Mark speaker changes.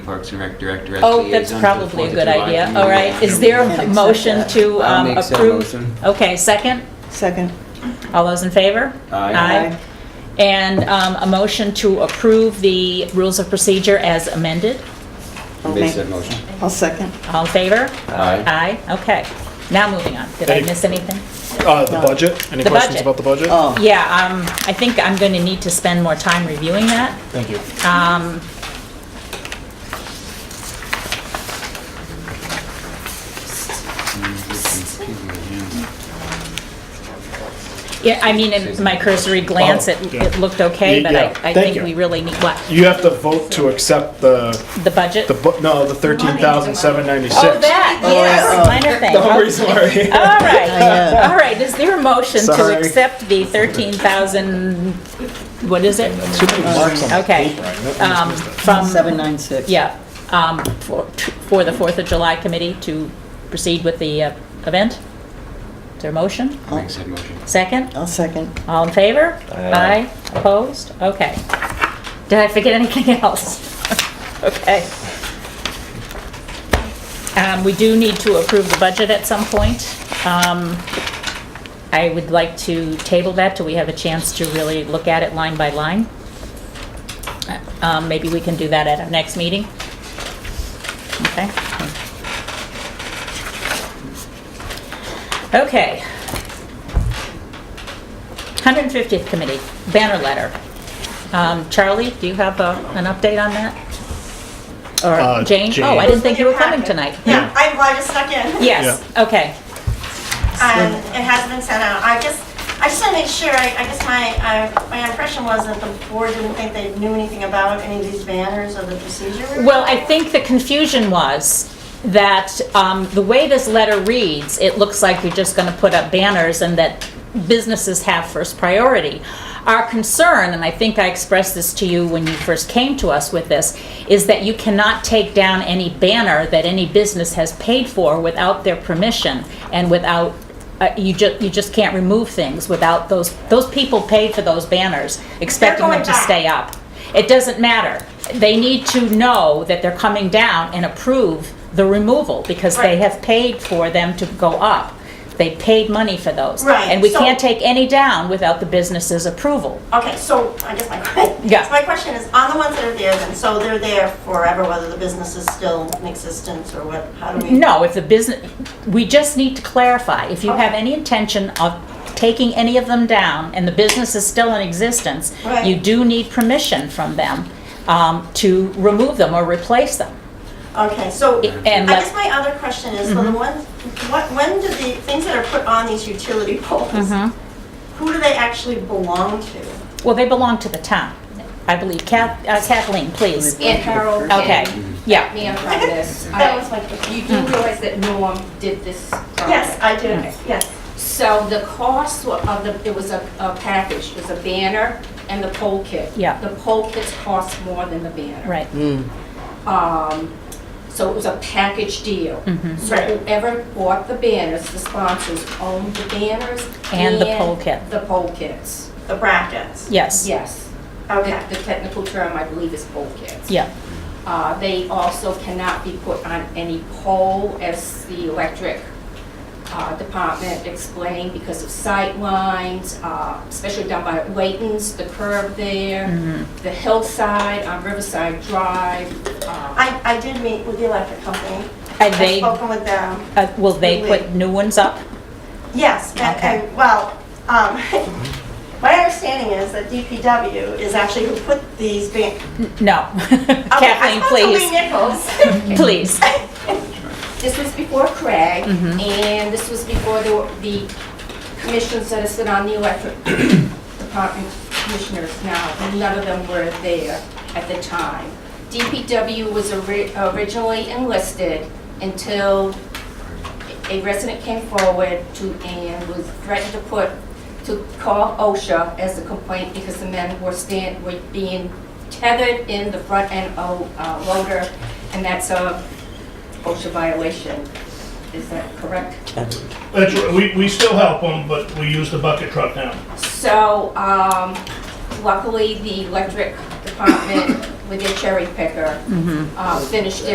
Speaker 1: Parks and Rec Director as
Speaker 2: Oh,
Speaker 1: liaison
Speaker 2: that's
Speaker 1: to the
Speaker 2: probably a
Speaker 1: Fourth
Speaker 2: good
Speaker 1: of July
Speaker 2: idea,
Speaker 1: community
Speaker 2: all right. Is
Speaker 1: action
Speaker 2: there
Speaker 1: meeting.
Speaker 2: a motion to
Speaker 1: I'll
Speaker 2: um,
Speaker 1: make said
Speaker 2: approve?
Speaker 1: motion.
Speaker 2: Okay, second?
Speaker 3: Second.
Speaker 2: All those in favor?
Speaker 1: Aye.
Speaker 3: Aye.
Speaker 2: And um, a motion to approve the rules of procedure as amended?
Speaker 3: I'll
Speaker 1: Make
Speaker 3: make-
Speaker 1: said motion.
Speaker 3: I'll second.
Speaker 2: All in favor?
Speaker 1: Aye.
Speaker 2: Aye, okay. Now moving on. Did I
Speaker 4: Any-
Speaker 2: miss anything?
Speaker 4: Uh, the
Speaker 3: No.
Speaker 4: budget? Any
Speaker 2: The
Speaker 4: questions
Speaker 2: budget.
Speaker 4: about the budget?
Speaker 3: Oh.
Speaker 2: Yeah, um, I think I'm going to need to spend more time reviewing that.
Speaker 4: Thank you.
Speaker 2: Um, Yeah, I mean, in my cursory glance, it
Speaker 4: Oh, yeah.
Speaker 2: it looked okay,
Speaker 4: Y-
Speaker 2: but
Speaker 4: yeah,
Speaker 2: I- I
Speaker 4: thank
Speaker 2: think
Speaker 4: you.
Speaker 2: we really need, what,
Speaker 4: You have to vote to accept the,
Speaker 2: the budget?
Speaker 4: the, bu- no, the thirteen thousand seven ninety-six.
Speaker 2: Oh, that, yes, minor thing.
Speaker 4: Don't worry, sorry.
Speaker 2: All right, all right, is there a motion to
Speaker 4: Sorry.
Speaker 2: accept the 13,000, what is it?
Speaker 4: Too many marks on the
Speaker 2: Okay.
Speaker 4: paper, I know-
Speaker 2: Um, From,
Speaker 3: 796.
Speaker 2: yeah, um, for for the 4th of July committee to proceed with the uh, event? Is there a motion?
Speaker 1: I'll Make said motion.
Speaker 2: Second?
Speaker 3: I'll second.
Speaker 2: All in favor? Aye. Opposed? Okay. Did I forget anything else? Okay. Um, We do need to approve the budget at some point. Um, I would like to table that till we have a chance to really look at it line by line. Um, Maybe we can do that at our next meeting. Okay? Okay. 150th Committee, banner letter. Um, Charlie, do you have a- an update on that? Or
Speaker 4: Uh,
Speaker 2: Jane?
Speaker 4: Jane.
Speaker 2: Oh, I didn't think you were
Speaker 5: It was in your
Speaker 2: coming tonight.
Speaker 5: packet. Yeah, I'm glad you stuck in.
Speaker 2: Yes, okay.
Speaker 5: And it has been sent out. I just, I just want to make sure, I I guess my, uh, my impression was that the board didn't think they knew anything about any of these banners or the procedure. we were
Speaker 2: Well, I
Speaker 5: doing.
Speaker 2: think the confusion was that um, the way this letter reads, it looks like you're just going to put up banners and that businesses have first priority. Our concern, and I think I expressed this to you when you first came to us with this, is that you cannot take down any banner that any business has paid for without their permission and without uh, you just you just can't remove things without those those people paid for those banners expecting them
Speaker 5: going
Speaker 2: to
Speaker 5: back.
Speaker 2: stay up it doesn't matter they need to know that they're coming down and approve the removal because they
Speaker 5: Right.
Speaker 2: have paid for them to go up they paid money for those
Speaker 5: Right,
Speaker 2: and we
Speaker 5: so-
Speaker 2: can't take any down without the business's approval
Speaker 5: Okay, so I guess my, que-
Speaker 2: Yeah.
Speaker 5: so my question is, on the ones that are there then, so they're there forever, whether the business is still in existence or what, how do we?
Speaker 2: No, if the business, we just need to clarify, if you have any intention of taking any of them down and the business is still in existence,
Speaker 5: Right.
Speaker 2: you do need permission from them um, to remove them or replace them.
Speaker 5: Okay, so
Speaker 2: I- and Mm-hmm.
Speaker 5: I
Speaker 2: let-
Speaker 5: guess my other question is, for the one, what, when do the things that are put on these utility poles,
Speaker 2: Mm-hmm.
Speaker 5: who do they actually belong to?
Speaker 2: Well, they belong to the town, I believe. Kath- uh, Kathleen, please.
Speaker 6: And Harold and
Speaker 2: Okay, Mm-hmm. yeah.
Speaker 6: Nam from this.
Speaker 5: That was my
Speaker 6: I- You do realize that Norm did this project?
Speaker 5: Yes, I do, yes.
Speaker 6: So the cost wa- of the, it was a, a package, it was a banner and the pole kit.
Speaker 2: Yeah.
Speaker 6: The pole kits cost more than the banner.
Speaker 2: Right,
Speaker 6: Um, so it was a package deal.
Speaker 2: Mm-hmm.
Speaker 6: So
Speaker 5: Right.
Speaker 6: whoever bought the banners, the sponsors owned the banners.
Speaker 2: And the pole kit.
Speaker 6: The pole kits,
Speaker 5: The brackets.
Speaker 2: yes,
Speaker 6: yes.
Speaker 5: Okay.
Speaker 6: The the technical term, I believe, is pole kits.
Speaker 2: yeah,
Speaker 6: Uh, They also cannot be put on any pole, as the electric uh, department explained, because of sight lines, uh, especially down by Layton's, the curb there, the hillside on Riverside Drive. uh,
Speaker 5: I, I did meet with the electric company.
Speaker 2: And they-
Speaker 5: I've spoken with them.
Speaker 2: Uh, will they put new ones up?
Speaker 5: Yes, and,
Speaker 2: Okay.
Speaker 5: and, well, um, my understanding is that DPW is actually who put these ban-
Speaker 2: No.
Speaker 5: Okay,
Speaker 2: Kathleen, please,
Speaker 5: I spoke to Lee Nichols.
Speaker 2: please.
Speaker 6: This was before Craig, and this was before the the commissions that are sit on the electric department commissioners now. None of them were there at the time. DPW was ori- originally enlisted until a resident came forward to, and was threatened to put, to call OSHA as a complaint because the men were stand, were being tethered in the front end of uh, loader, and that's a OSHA violation. Is that correct?
Speaker 7: That's, right. we, we still help them, but we use the bucket truck now.
Speaker 6: So um, luckily, the electric department with their cherry picker, uh, finished